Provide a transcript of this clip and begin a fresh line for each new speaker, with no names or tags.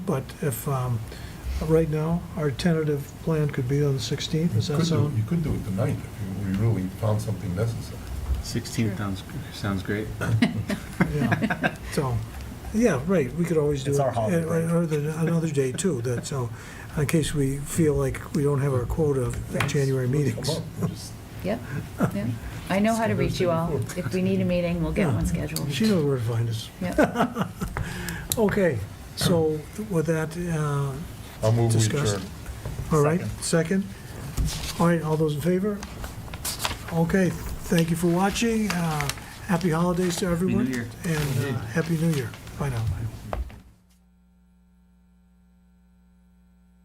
But if, um, right now, our tentative plan could be on the 16th, does that
You could do, you
sound?
could do it tonight if you really found something necessary.
16th sounds, sounds great.
Yeah. So, yeah, right, we could always do it.
It's our holiday,
and-
right?
or the- Another day, too, that, so, in case we feel like we don't have our quota of January
Come
meetings.
up, we'll just-
Yep, yep. I know how to reach you all.
Thursday
If we need a meeting, we'll get
Yeah.
one scheduled.
She knows where to find us.
Yep.
Okay, so with that, uh,
I'll move we
Discussed.
adjourn.
all right, second? All right, all those in favor? Okay, thank you for watching. Uh, Happy holidays to everyone.
Year.
And uh, Happy New Year. Bye now.